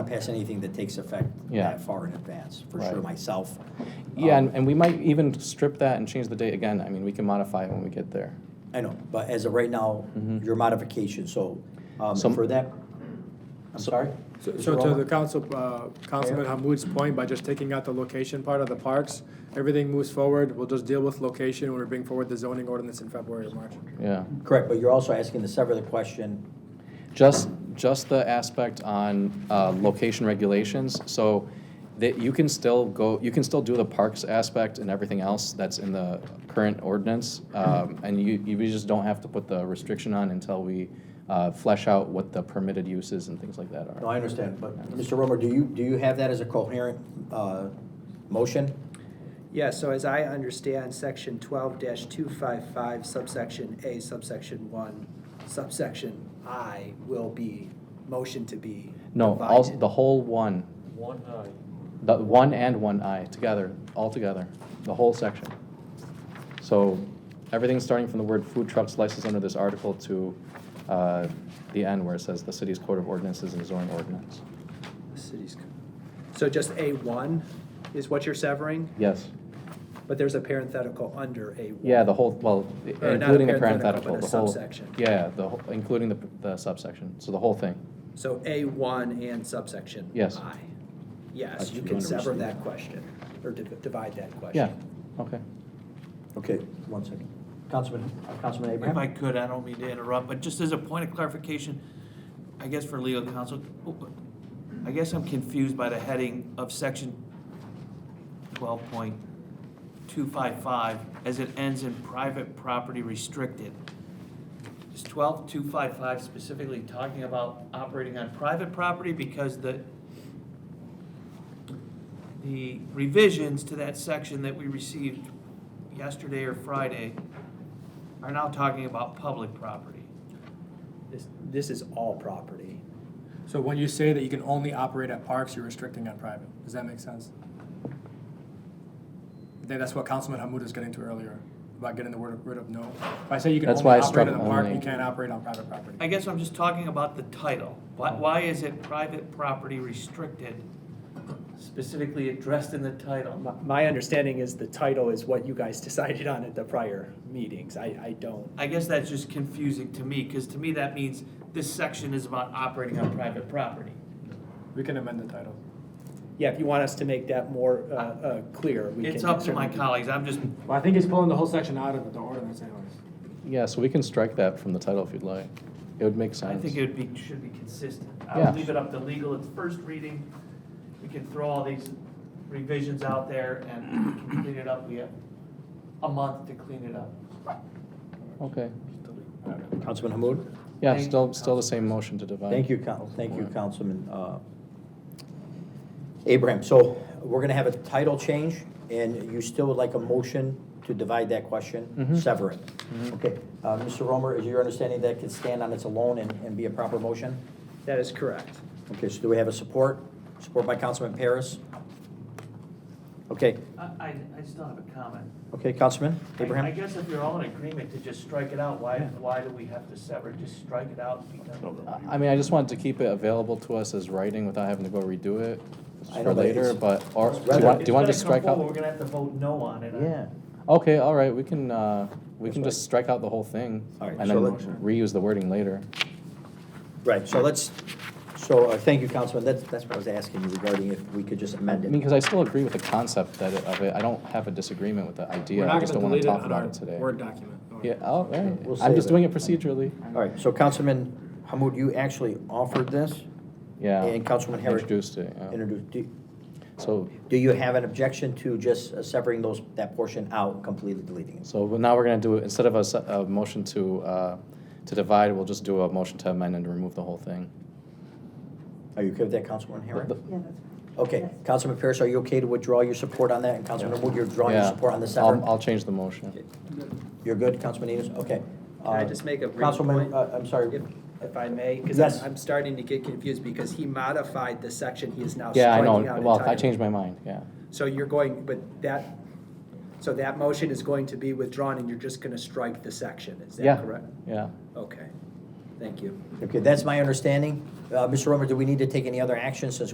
pass anything that takes effect Yeah. that far in advance, for Right. sure, myself. Yeah, Um, and, and we might even strip that and change the date again. I mean, we can modify it when we get there. I know, but as of right now, Mhm. your modification, so um, Some- for that, I'm sorry? So so to the council, uh, Councilman Hamud's point, by just taking out the location part of the parks, everything moves forward. We'll just deal with location when we bring forward the zoning ordinance in February or March. Yeah. Correct, but you're also asking to sever the question, Just, just the aspect on uh, location regulations, so that you can still go, you can still do the parks aspect and everything else that's in the current ordinance, um, and you, you just don't have to put the restriction on until we uh, flesh out what the permitted uses and things like that no, are. I understand, but Mr. Romer, do you, do you have that as a coherent uh, motion? Yeah, so as I understand, section twelve two five five subsection A subsection one subsection I will be, motion to be No, all, divided. the whole one, One eye. the one and one I, together, all together, the whole section. So, everything starting from the word food trucks licensed under this article to uh, the end where it says the city's code of ordinances and zoning ordinance. The city's co- So just A one is what you're severing, Yes. but there's a parenthetical under A one. Yeah, the whole, well, i- Or not a including the parenthetical, parenthetical, but a the whole. subsection. Yeah, the, whole- including the, the subsection, so the whole thing. So A one and subsection Yes. I. Yes, I you do can sever understand. that question, or div- divide that question. Yeah, okay. Okay, one second. Councilman, uh, Councilman If I Abraham? could, I don't mean to interrupt, but just as a point of clarification, I guess for legal counsel, I guess I'm confused by the heading of section twelve point two five five as it ends in private property restricted. Is twelve two five five specifically talking about operating on private property because the the revisions to that section that we received yesterday or Friday are now talking about public property. This, this is all property. So when you say that you can only operate at parks, you're restricting on private. Does that make sense? I think that's what Councilman Hamud was getting to earlier, about getting the word, rid of no. If I say you can That's only why I struck operate in the park, only. you can't operate on private property. I guess I'm just talking about the title. Why, why is it private property restricted specifically addressed in the title? My- My understanding is the title is what you guys decided on at the prior meetings. I, I don't. I guess that's just confusing to me, because to me that means this section is about operating on private property. We can amend the title. Yeah, if you want us to make that more uh, uh, clear, we can. It's up to my certainly- colleagues, I'm just, Well, I think he's pulling the whole section out of the ordinance anyways. Yeah, so we can strike that from the title if you'd like. It would make I sense. think it would be, should be consistent. Yeah. I'll leave it up to legal, it's first reading, we can throw all these revisions out there and clean it up, we have a month to clean it up. Okay. Councilman Hamud? Yeah, Thank- still, still the same motion to divide. Thank you, Coun- thank you, Councilman uh, Abraham. So we're going to have a title change, and you still would like a motion to divide that question, Mhm. sever it. Okay, Uh, Mr. Romer, is your understanding that can stand on its own and and be a proper motion? That is correct. Okay, so do we have a support? Support by Councilman Paris? Okay, I, I, I still have a comment. okay, Councilman I- I Abraham? guess if you're all in agreement to just strike it out, why, why do we have to sever, just strike it out? because- I- I mean, I just wanted to keep it available to us as writing without having to go redo it I know, for but later, it's- but, or, do you rather- want, do It's you want to gonna just strike come forward, out? We're gonna have to vote no on it. Yeah. Okay, all right, we can, uh, we That's can just strike out the whole thing. All right, And so then let's- reuse the wording later. Right, so let's, so, uh, thank you, Councilman, that's, that's what I was asking you regarding if we could just I amend mean, it. because I still agree with the concept that, it- of it, I don't have a disagreement with the We're idea, I not just don't gonna wanna delete it talk on about our it today. Word document. Yeah, oh, all right, We'll I'm save just it. doing it procedurally, All right, so Councilman Hamud, you actually offered this? yeah. And Councilman Herrick Introduced it, yeah. introduced, do, So, do you have an objection to just uh, severing those, that portion out, completely deleting it? so now we're gonna do, it instead of a, se- a motion to, uh, to divide, we'll just do a motion to amend and remove the whole thing. Are you okay with that, Councilman Herrick? The- Yeah, that's fine. Okay, Yes. Councilman Pierce, are you okay to withdraw your support on that, and Councilman Hamud, you're drawing your Yeah, support on the I'll- sever? I'll change the motion. You're good, Councilman Enos, okay. Can I Uh, just make a brief Councilman, point? uh, I'm sorry, If, if I may, because Yes. I'm starting to get confused because he modified the section he is now Yeah, I striking out know, entirely. well, I changed my mind, yeah. So you're going, but that, so that motion is going to be withdrawn and you're just going to strike the section. Is Yeah, that correct? Yeah, Okay, thank you. okay, that's my understanding. Uh, Mr. Romer, do we need to take any other action since